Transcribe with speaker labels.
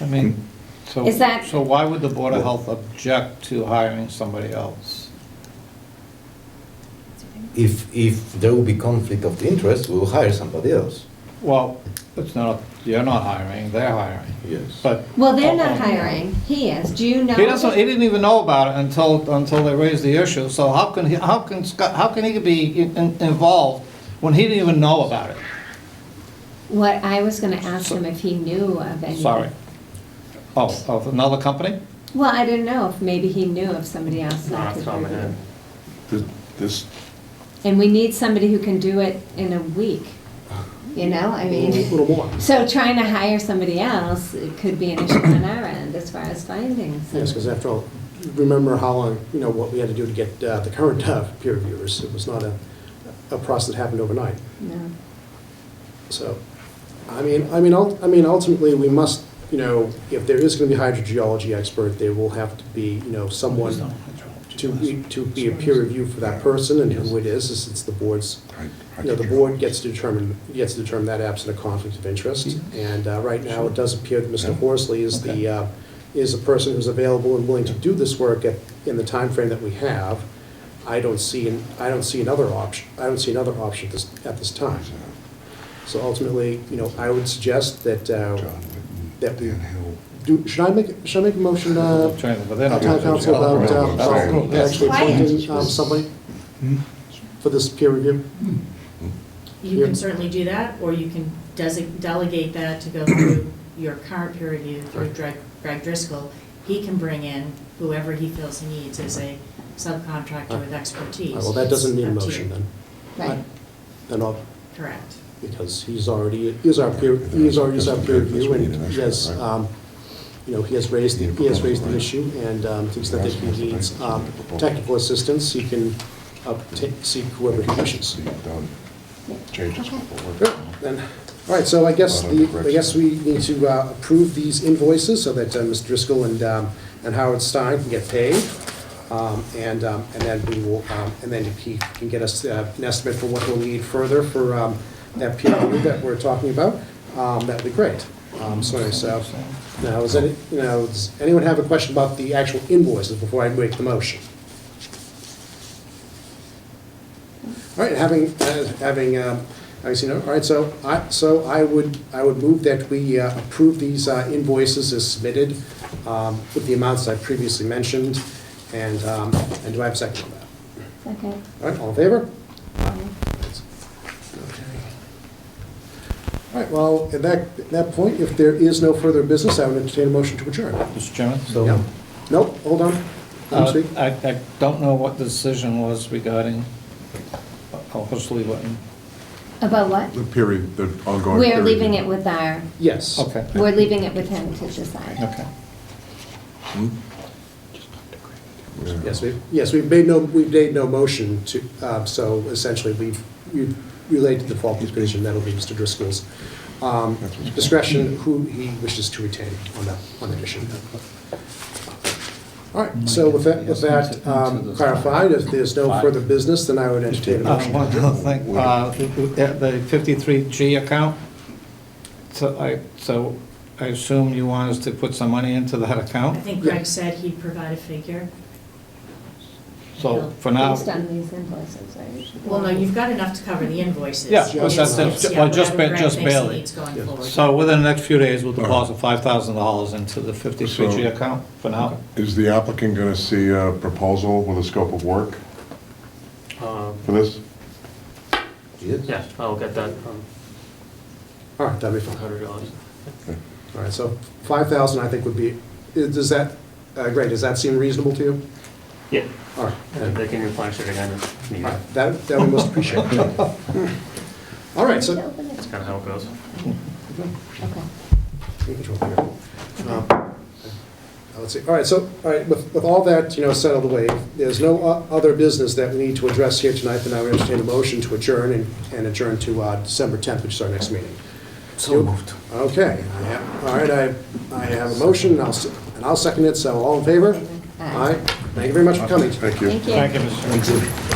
Speaker 1: I mean, so,
Speaker 2: Is that-
Speaker 1: so why would the Board of Health object to hiring somebody else?
Speaker 3: If, if there will be conflict of interest, we will hire somebody else.
Speaker 1: Well, it's not, you're not hiring, they're hiring,
Speaker 3: Yes.
Speaker 1: but.
Speaker 2: Well, they're not
Speaker 1: Uh-oh.
Speaker 2: hiring, he is, do you know?
Speaker 1: He doesn't, he didn't even know about it until, until they raised the issue, so how can he, how can Scott, how can he be in- in- involved when he didn't even know about it?
Speaker 2: What, I was gonna ask him if he knew of any.
Speaker 1: Sorry. Oh, of another company?
Speaker 2: Well, I didn't know if maybe he knew of somebody else that could review.
Speaker 4: This- This,
Speaker 2: And we need somebody who can do it in a week, you know, I mean.
Speaker 4: more.
Speaker 2: So trying to hire somebody else it could be an issue on our end as far as finding
Speaker 5: Yes, because
Speaker 2: somebody.
Speaker 5: after all, remember how long, you know, what we had to do to get uh, the current uh, peer reviewers. It was not a, a process that happened overnight.
Speaker 2: No.
Speaker 5: So, I mean, I mean, ult- I mean, ultimately, we must, you know, if there is going to be hydrogeology expert, there will have to be, you know, someone to, be- to be a peer review for that person and who it is, since the board's, you know, the board gets to determine, gets to determine that absent a conflict of interest. And uh, right now, it does appear that Mr. Horsley is the, uh, is the person who's available and willing to do this work at, in the timeframe that we have. I don't see, an- I don't see another option, I don't see another option at this, at this time. So ultimately, you know, I would suggest that, uh, that we do, should I make, should I make a motion, uh,
Speaker 1: Training, but they're
Speaker 5: uh,
Speaker 1: not.
Speaker 5: town council about,
Speaker 4: That's
Speaker 5: uh, about
Speaker 4: right.
Speaker 5: actually
Speaker 6: Quiet.
Speaker 5: appointing, um, somebody for this peer review?
Speaker 6: You can certainly do that, or you can desig- delegate that to go through your current peer review through Greg Greg Driscoll. He can bring in whoever he feels he needs as a subcontractor with expertise.
Speaker 5: Uh, Well, that doesn't need a
Speaker 6: It's up to
Speaker 5: motion
Speaker 6: you.
Speaker 5: then.
Speaker 2: Right.
Speaker 5: Then I'll,
Speaker 6: Correct.
Speaker 5: because he's already, he is our peer, he is already our peer review and he has, um, you know, he has raised, he has raised the issue and, um, to the extent that he needs, um, technical assistance, he can obtain, seek whoever he wishes. Then, all right, so I guess, the- I guess we need to uh, approve these invoices so that uh, Mr. Driscoll and, um, and Howard Stein can get paid. Um, And, um, and then we will, um, and then he can get us uh, an estimate for what we'll need further for um, that peer review that we're talking about. Um, That'd be great. Um, So, anyway, so, now, is any, you know, does anyone have a question about the actual invoices before I make the motion? All right, having, uh, having, um, I see, no, all right, so I, so I would, I would move that we uh, approve these uh, invoices as submitted um, with the amounts I previously mentioned, and, um, and do I have a second on that?
Speaker 2: Okay.
Speaker 5: All right, all in favor?
Speaker 2: Um,
Speaker 5: All right, well, at that, at that point, if there is no further business, I would entertain a motion to adjourn.
Speaker 1: Mr. Chairman?
Speaker 3: So,
Speaker 5: Yeah. Nope, hold on, let
Speaker 1: Uh,
Speaker 5: me speak.
Speaker 1: I, I don't know what the decision was regarding, oh, Horsley Witten.
Speaker 2: About what?
Speaker 4: The period, the ongoing.
Speaker 2: We're
Speaker 4: period.
Speaker 2: leaving it with our,
Speaker 5: Yes.
Speaker 1: Okay,
Speaker 2: we're leaving it with him to decide.
Speaker 1: okay.
Speaker 4: Hmm? Yeah.
Speaker 5: Yes, we, yes, we've made no, we've made no motion to, uh, so essentially, we've, we've relayed to the default position, that'll be Mr. Driscoll's um, discretion, who he wishes to retain on that, on that issue. All right, so with that, with that um, clarified, if there's no further business, then I would entertain a
Speaker 1: Uh,
Speaker 5: motion.
Speaker 1: One other thing, uh, the the 53G account, so I, so I assume you want us to put some money into that
Speaker 6: I
Speaker 1: account?
Speaker 6: think Greg said he'd provide a figure.
Speaker 1: So for now,
Speaker 2: Based on these invoices, right?
Speaker 6: Well, no, you've got enough to cover the invoices.
Speaker 1: Yeah,
Speaker 5: but that's-
Speaker 6: It's- it's-
Speaker 1: well, just
Speaker 6: yeah,
Speaker 1: ba-
Speaker 6: whatever
Speaker 1: just
Speaker 6: Greg thinks he
Speaker 1: barely.
Speaker 6: needs going
Speaker 5: Yeah.
Speaker 6: forward.
Speaker 1: so within the next few days, we'll deposit $5,000 into the 53G
Speaker 4: So-
Speaker 1: account for now.
Speaker 4: Is the applicant going to see a proposal with a scope of work
Speaker 7: Um,
Speaker 4: for this?
Speaker 3: Yes.
Speaker 7: Yeah, I'll get that, um,
Speaker 5: All right, that'd be fine.
Speaker 7: hundred dollars.
Speaker 5: All right, so 5,000, I think, would be, is- does that, uh, great, does that seem reasonable to you?
Speaker 7: Yeah,
Speaker 5: All right.
Speaker 7: and they can replenish it again if needed.
Speaker 5: All right, That, that we most appreciate. All right, so,
Speaker 7: That's kind of how it goes.
Speaker 2: Okay.
Speaker 5: Take control here. Um, uh, Let's see, all right, so, all right, with, with all that, you know, set out of the way, there's no o- other business that we need to address here tonight, then I would entertain a motion to adjourn and, and adjourn to, uh, December tenth, which is our next meeting. So moved. Okay, I have, all right, I, I have a motion, and I'll, se- and I'll second it, so all in favor?
Speaker 2: Aye.
Speaker 5: All right, thank you very much for coming.
Speaker 4: Thank you.
Speaker 2: Thank you.
Speaker 1: Thank you, Mr. Chairman.